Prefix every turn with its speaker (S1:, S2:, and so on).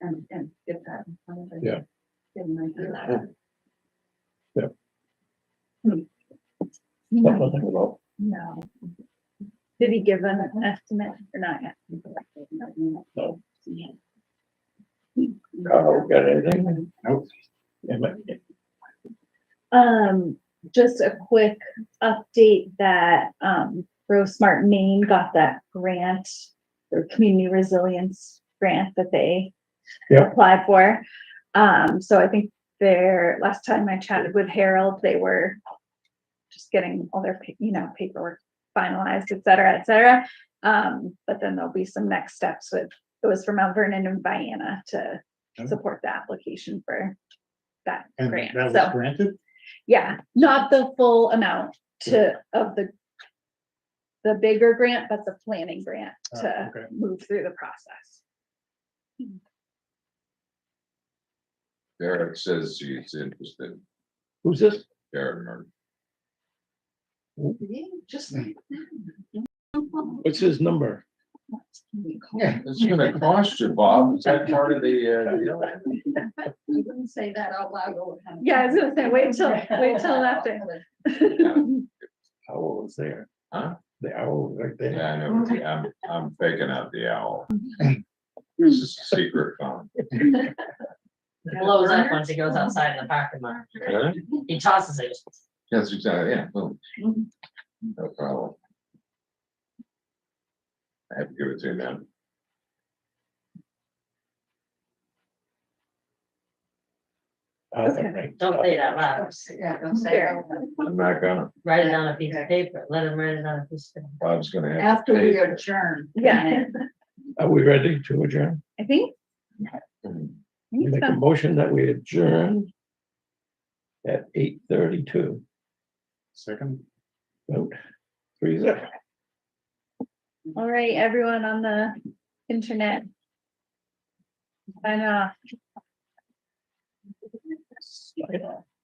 S1: and, and get that. in front of them.
S2: Yeah.
S1: Get an idea.
S2: Something to think about.
S1: Hmm. No.
S3: Did he give an estimate or not yet?
S2: No.
S1: Yeah.
S2: Carl, Uh, got anything? Nope.
S3: Um, just a quick update that, um, Grow Smart Maine got that grant, their community resilience grant that they
S2: Yeah.
S3: applied for. Um, so I think their, last time I chatted with Harold, they were just getting all their, pa- you know, paperwork finalized, et cetera, et cetera. Um, but then there'll be some next steps with, it was for Mount Vernon and Vienna to
S2: Okay.
S3: support the application for that
S2: And
S3: grant.
S2: that
S3: So-
S2: was granted?
S3: yeah, not the full amount to, of the. The bigger grant, but the planning grant
S2: Oh,
S3: to
S2: okay.
S3: move through the process.
S4: Derek says he's interested,
S2: Who's this?
S4: Derek Murphy.
S1: Just.
S5: What's his number?
S4: Yeah, it's gonna cost you, Bob, is that part of the, uh, deal?
S1: You wouldn't say that out loud. all the time.
S3: Yeah, I was gonna say, wait till- wait till after.
S2: Owl was there.
S4: Huh?
S2: The owl was right there.
S4: yeah, I know, I'm, I'm faking out the owl. This is a secret phone.
S6: blows up once he goes outside in the parking lot.
S2: Uh,
S6: He tosses it.
S4: Yes, exactly, yeah, boom. No problem. I have to give it to them.
S2: Uh,
S3: Okay.
S2: right.
S6: Don't say that loud.
S1: Yeah, don't say.
S3: Fair.
S1: it out loud.
S4: I'm not gonna,
S6: Write it on a piece of paper. Let him write it on a piece of paper.
S4: Bob's gonna have. to
S1: After
S4: pay.
S1: we adjourn.
S3: Yeah.
S2: Are we ready to adjourn?
S3: I think.
S4: Mhm.
S3: I
S2: We
S3: think
S2: Make
S3: so.
S2: a motion that we adjourn at eight thirty-two. Second. Vote, three zero.
S3: All right, everyone on the internet. uh, I know.
S2: Sign off.